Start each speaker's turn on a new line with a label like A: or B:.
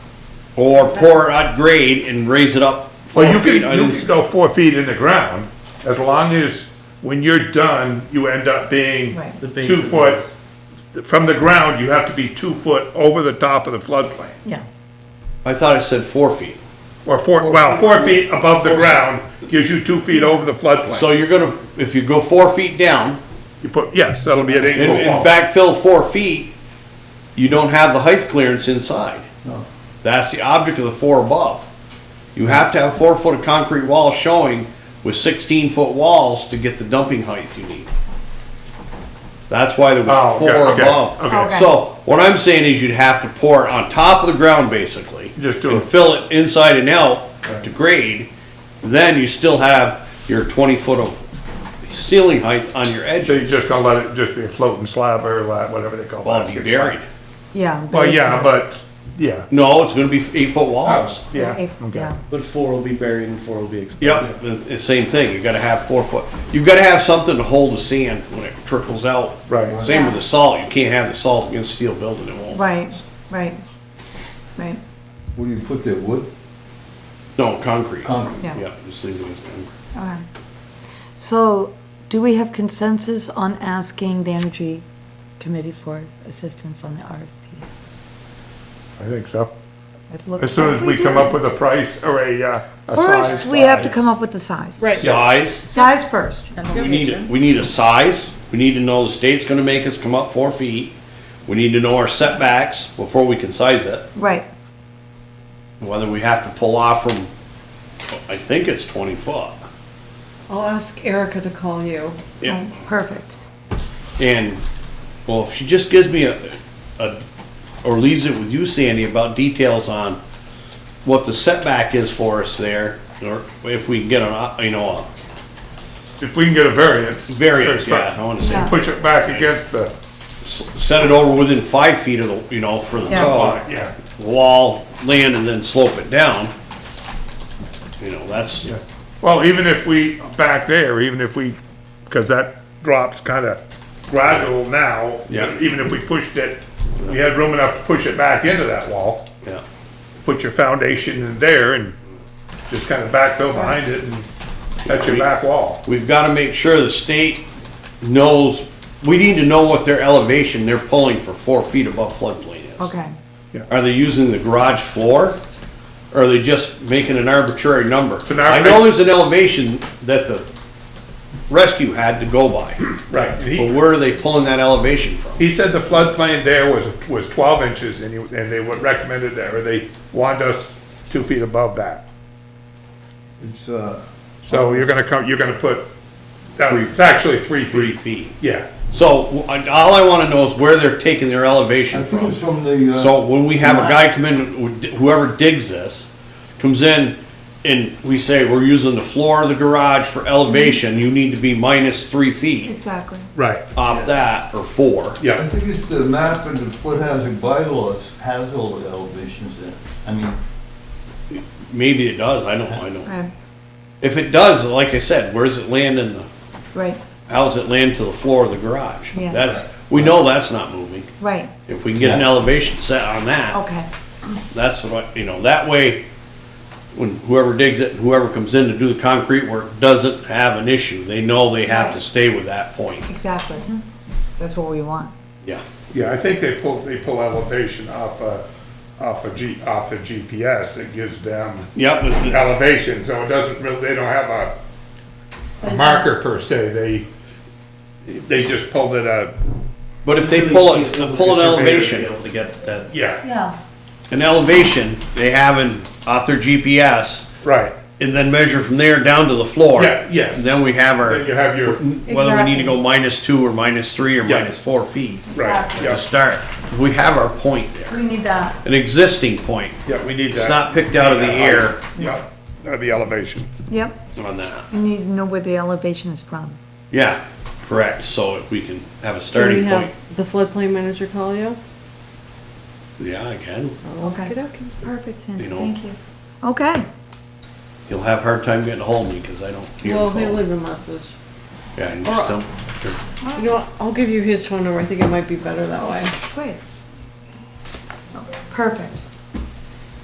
A: Or pour it at grade and raise it up four
B: Well, you can,
A: feet. I
B: you
A: didn't
B: can
A: s-
B: go four feet in the ground, as long as when you're done, you end up being
C: Right.
D: The base
B: two
D: of
B: foot. From the ground, you have to be two foot over the top of the floodplain,
C: Yeah,
A: I thought I said four feet.
B: or four, well, four feet above the ground gives you two feet over the floodplain.
A: So you're gonna, if you go four feet down
B: You put, yes, that'll be an eight
A: and,
B: foot
A: and
B: wall.
A: backfill four feet, you don't have the height clearance inside. That's the object of the four above. You have to have four foot of concrete wall showing with sixteen foot walls to get the dumping height you need. That's why there
B: Oh,
A: was
B: okay,
A: four
B: okay,
A: above.
C: okay.
A: So what I'm saying is you'd have to pour it on top of the ground basically.
B: Just do
A: And
B: it.
A: fill it inside and out to grade, then you still have your twenty foot of ceiling height on your edges.
B: So you're just gonna let it just be a floating slab or la- whatever they call
A: Well,
B: that.
A: if you're buried.
C: yeah.
B: Well,
C: but
B: yeah,
C: it's-
B: but, yeah,
A: No, it's gonna be eight foot walls.
B: yeah,
C: if-
B: okay.
C: yeah.
D: But four will be buried and four will be exposed.
A: Yep, it's the same thing, you gotta have four foot, you've gotta have something to hold the sand when it trickles out.
B: Right.
A: Same with the salt, you can't have the salt against steel building, it won't.
C: Right, right, right,
E: What do you put there, wood?
A: No, concrete.
E: Concrete.
C: Yeah.
A: Yeah, just leave it as concrete.
C: okay. So, do we have consensus on asking the Energy Committee for assistance on the RFP?
B: I think so.
C: I've looked-
B: As soon as we come up with a price or a, uh, a size.
C: First, we have to come up with the size.
F: Right.
A: Size,
C: Size first.
A: we need, a- we need a size, we need to know the state's gonna make us come up four feet. We need to know our setbacks before we can size it,
C: Right,
A: whether we have to pull off from, I think it's twenty foot.
F: I'll ask Erica to call you.
A: Yeah.
C: Oh, perfect.
A: And, well, if she just gives me a, a, or leaves it with you, Sandy, about details on what the setback is for us there, or if we can get a, you know,
B: If we can get a variance.
A: a variance,
B: there's
A: yeah, I
B: fine.
A: wanna say,
C: Yeah.
B: Push it back against the,
A: set it over within five feet of the, you know, for the
C: Yeah.
A: top,
B: yeah,
A: wall, land, and then slope it down. You know, that's,
B: yeah. Well, even if we, back there, even if we, because that drops kind of gradual now.
A: Yeah.
B: Even if we pushed it, we had room enough to push it back into that wall,
A: yeah,
B: put your foundation in there and just kind of backfill behind it and that's your back wall.
A: we've gotta make sure the state knows, we need to know what their elevation they're pulling for four feet above floodplain is.
C: Okay,
A: Are they using the garage floor? Or are they just making an arbitrary number?
B: an
A: I
B: arbi-
A: know there's an elevation that the rescue had to go by,
B: Right.
A: but
B: He,
A: where are they pulling that elevation from?
B: he said the floodplain there was, was twelve inches and he, and they would recommend it there, or they wanted us two feet above that.
E: It's, uh,
B: So you're gonna come, you're gonna put, that- it's actually three feet.
A: feet.
B: Yeah,
A: So, I- all I wanna know is where they're taking their
E: I
A: elevation
E: think
A: from.
E: it's from the, uh.
A: So when we have a guy come in, whoever digs this, comes in and we say, we're using the floor of the garage for elevation, you need to be minus three feet
C: exactly.
B: right,
A: off that, or four.
E: I
B: yeah.
E: think it's the map and the foot hazard bylaws has all the elevations in. it. I mean,
A: Maybe it does, I don't, I don't.
C: Right,
A: If it does, like I said, where's it land in the,
C: right,
A: how's it land to the floor of the garage?
C: Yeah.
A: That's, we know that's not moving.
C: right,
A: If we can get an
E: Yeah.
A: elevation set on that,
C: okay,
A: that's what, I- you know, that way, when whoever digs it, whoever comes in to do the concrete work, doesn't have an issue. They know they have to stay with that point.
C: exactly.
B: Mm-hmm.
C: That's what we want.
A: Yeah.
B: Yeah, I think they pull, they pull elevation off a, off a G, off a GPS, it gives them
A: Yep, but the-
B: elevation, so it doesn't really, they don't have a, a marker per se, they, they just pulled it a,
A: but if they pull it, pull an elevation,
D: Able to get that.
B: yeah,
C: Yeah.
A: an elevation, they have in, off their GPS,
B: right.
A: and then measure from there down to the floor.
B: Yeah, yes.
A: Then we have our.
B: Then you have your,
A: whether we need to go minus two or minus three or
B: Yeah.
A: minus four feet
B: right,
C: Exactly.
A: to
B: yeah,
A: start. We have our point there,
C: We need that.
A: an existing point.
B: yeah, we need that.
A: It's not picked out of the air
B: Yeah, uh, the elevation.
C: Yep,
A: on that.
C: you need to know where the elevation is from.
A: Yeah, correct. So if we can have a
F: Do we
A: starting point.
F: have the floodplain manager call you?
A: Yeah, again,
C: Okay,
F: Okey-dokey.
C: perfect, Sandy,
A: You know.
C: thank you. Okay,
A: you'll have a hard time getting ahold of me because I don't hear
F: Well,
A: the
F: he'll
A: phone.
F: leave a message.
A: Yeah, and just don't.
F: You know what, I'll give you his phone number, I think it might be better that way.
C: great. Perfect.